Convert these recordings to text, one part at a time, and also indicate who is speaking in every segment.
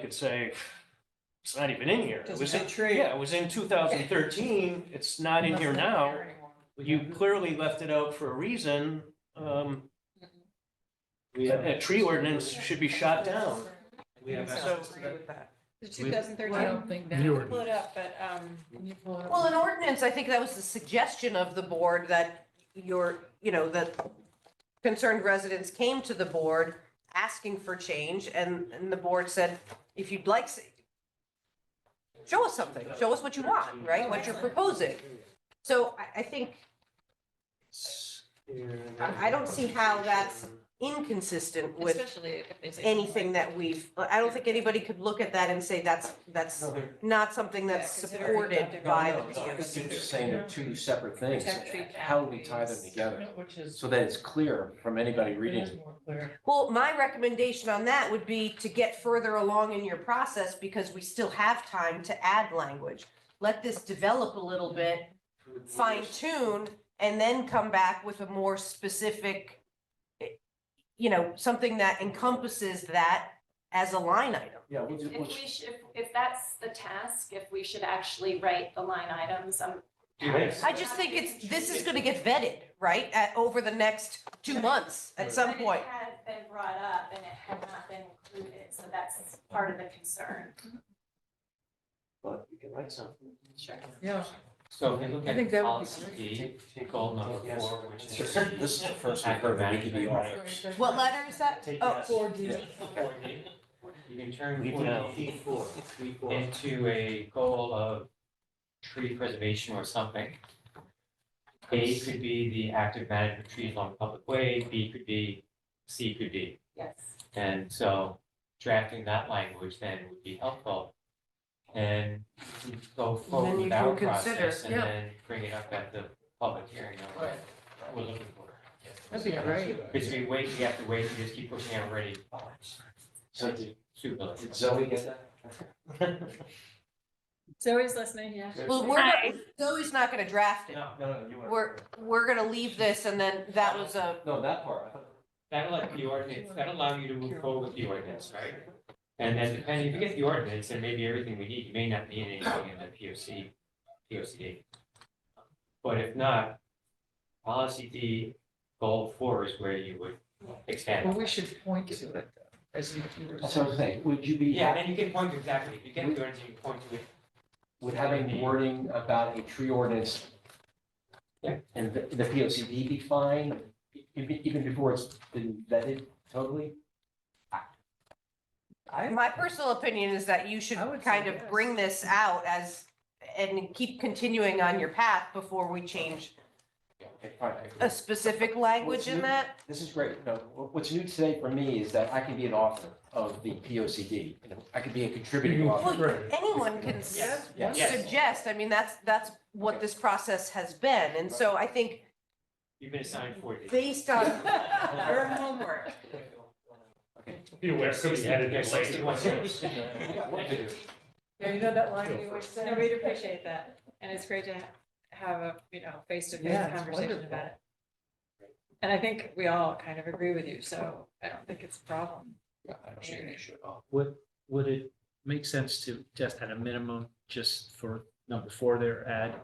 Speaker 1: could say, it's not even in here. It
Speaker 2: Doesn't
Speaker 1: was,
Speaker 2: have
Speaker 1: in-
Speaker 2: a tree.
Speaker 1: yeah, it was in two thousand thirteen. It's not in here now. You clearly left it out for a reason. Um, a a tree ordinance should be shot down.
Speaker 3: We have
Speaker 2: So-
Speaker 3: access to that.
Speaker 2: The two thousand thirteen.
Speaker 4: think
Speaker 5: You
Speaker 2: Pull it up, but, um,
Speaker 6: Well, an ordinance, I think that was the suggestion of the board that your, you know, that concerned residents came to the board asking for change and, and the board said, if you'd like, s- show us something, show us what you want, right? What you're proposing. So I, I think I- I don't see how that's- inconsistent with
Speaker 4: Especially if they say.
Speaker 6: anything that we've, I don't think anybody could look at that and say that's, that's
Speaker 1: No, they're-
Speaker 6: not something that's
Speaker 2: Yeah, considering
Speaker 6: supported
Speaker 2: that
Speaker 6: by
Speaker 2: they're-
Speaker 6: the
Speaker 2: No, no,
Speaker 6: POC.
Speaker 3: You're just saying they're two separate things.
Speaker 4: Protect tree
Speaker 3: How do we tie them
Speaker 4: canopies.
Speaker 3: together
Speaker 4: Which is.
Speaker 3: so that it's clear from anybody reading?
Speaker 4: It is more clear.
Speaker 6: Well, my recommendation on that would be to get further along in your process because we still have time to add language. Let this develop a little bit, fine tune, and then come back with a more specific, eh, you know, something that encompasses that as a line item.
Speaker 3: Yeah, we'll just,
Speaker 7: If we should, if, if that's the task, if we should actually write the line items, um.
Speaker 3: Yes.
Speaker 6: I just think it's, this is gonna get vetted, right, at, over the next two months at some
Speaker 7: But it
Speaker 6: point.
Speaker 7: had been brought up and it had not been included, so that's part of the concern.
Speaker 1: But we can write something.
Speaker 7: Sure.
Speaker 4: Yeah.
Speaker 8: So if you look
Speaker 4: I think
Speaker 8: at
Speaker 4: that would be
Speaker 8: policy B,
Speaker 1: Take- take-
Speaker 8: goal number
Speaker 1: Yes.
Speaker 8: four, which
Speaker 3: Sure.
Speaker 8: is.
Speaker 3: This is the first we've heard that we could be off.
Speaker 6: What letter is that?
Speaker 1: Take
Speaker 6: Oh,
Speaker 1: yes.
Speaker 4: Four D.
Speaker 3: Yeah.
Speaker 8: Four D. You can turn
Speaker 1: Leave
Speaker 8: four
Speaker 1: it out.
Speaker 8: D
Speaker 1: Four. Three, four.
Speaker 8: into a goal of tree preservation or something. A could be the active management of trees along public way, B could be, C could be.
Speaker 7: Yes.
Speaker 8: And so drafting that language then would be helpful. And we can go forward
Speaker 6: you
Speaker 8: with our
Speaker 6: can consider,
Speaker 8: process and
Speaker 4: yeah.
Speaker 8: then bring it up at the public hearing on what we're looking for.
Speaker 4: That'd be great.
Speaker 8: Because we wait, we have to wait, we just keep pushing out already.
Speaker 3: So did
Speaker 8: Super.
Speaker 3: did Zoe get that?
Speaker 4: Zoe's listening, yeah.
Speaker 6: Well, we're, not- Zoe's not gonna draft it.
Speaker 8: No,
Speaker 3: No, no, you weren't.
Speaker 6: We're, we're gonna leave this and then that was a,
Speaker 3: No, that part. I thought-
Speaker 8: that'll let the ordinance, that'll allow you to move forward with the ordinance, right? And then depending, if you get the ordinance, then maybe everything we need, you may not need anything in the P O C, P O C D. But if not, policy D, goal four is where you would
Speaker 4: Well,
Speaker 8: expand.
Speaker 4: we should point to it though, as you. you were
Speaker 3: That's what I was saying. Would you be,
Speaker 8: Yeah, and you can point to exactly, if you get the ordinance, you can point to it.
Speaker 3: would having wording about a tree ordinance
Speaker 8: Yeah.
Speaker 3: and the the P O C D be fine, even, even before it's been vetted totally?
Speaker 6: my personal opinion is that you should
Speaker 4: I would say
Speaker 6: kind of
Speaker 4: yes.
Speaker 6: bring this out as, and keep continuing on your path before we change
Speaker 3: Yeah, okay, fine, I agree.
Speaker 6: a specific language
Speaker 3: What's
Speaker 6: in
Speaker 3: new-
Speaker 6: that.
Speaker 3: This is great. No, wh- what's new today for me is that I can be an author of the P O C D. I could be a contributing
Speaker 4: Mm-hmm.
Speaker 3: author.
Speaker 6: Well, anyone can s-
Speaker 4: Yes.
Speaker 3: Yeah.
Speaker 8: Yes.
Speaker 6: suggest, I mean, that's, that's what this process has been. And so I think
Speaker 8: You've been assigned four D.
Speaker 6: based on,
Speaker 2: your homework.
Speaker 9: Be aware, could be added in later.
Speaker 3: I got work to do.
Speaker 4: Yeah, you know that line you always
Speaker 2: No, we'd
Speaker 4: say.
Speaker 2: appreciate that. And it's great to ha- have a, you know,
Speaker 4: Yeah,
Speaker 2: face-to-face
Speaker 4: it's
Speaker 2: conversation
Speaker 4: wonderful.
Speaker 2: about it. And I think we all kind of agree with you, so I don't think it's a problem.
Speaker 3: Yeah, I don't see an issue at all.
Speaker 10: Would, would it make sense to just at a minimum, just for number four there, add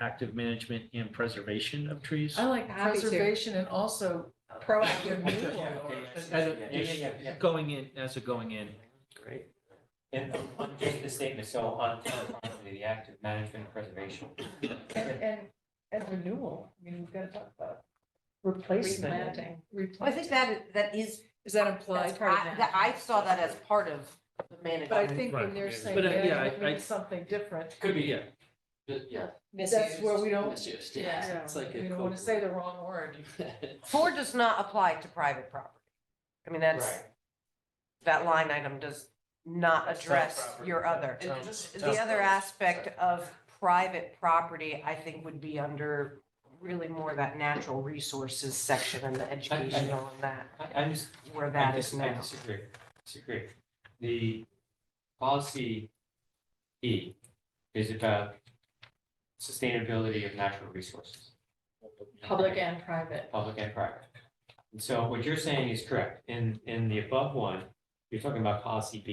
Speaker 10: active management and preservation of trees?
Speaker 4: I like
Speaker 2: Happy to.
Speaker 4: preservation and also proactive renewal.
Speaker 10: As-
Speaker 8: Yeah, yeah, yeah, yeah.
Speaker 10: Going in, as a going in.
Speaker 8: Great. And on just the statement, so on the active management and preservation.
Speaker 4: And, and, and renewal, I mean, we've got to talk about replacement.
Speaker 2: Replanting.
Speaker 6: I think that, that is,
Speaker 4: Is that
Speaker 6: I,
Speaker 4: implied?
Speaker 6: that- I saw that as part of the management.
Speaker 4: But I think when they're
Speaker 9: Right.
Speaker 4: saying,
Speaker 10: But, uh, yeah,
Speaker 4: yeah,
Speaker 10: I-
Speaker 4: it means something different,
Speaker 8: Could be,
Speaker 10: Yeah.
Speaker 8: yeah.
Speaker 4: that's where we don't,
Speaker 8: Misused,
Speaker 4: yeah, we don't want to say the wrong word.
Speaker 6: Four does not apply to private property. I mean, that's,
Speaker 8: Right.
Speaker 6: that line item does not
Speaker 1: That's
Speaker 6: address
Speaker 1: property.
Speaker 6: your other.
Speaker 1: Sounds- sounds
Speaker 6: The other
Speaker 1: gross.
Speaker 6: aspect of private property, I think, would be under really more that natural resources section and the educational and that,
Speaker 8: I- I'm just,
Speaker 6: where
Speaker 8: I
Speaker 6: that is
Speaker 8: dis- I
Speaker 6: now.
Speaker 8: disagree, disagree. The policy E is about sustainability of natural resources.
Speaker 2: Public and private.
Speaker 8: Public and private. And so what you're saying is correct. In, in the above one, you're talking about policy B.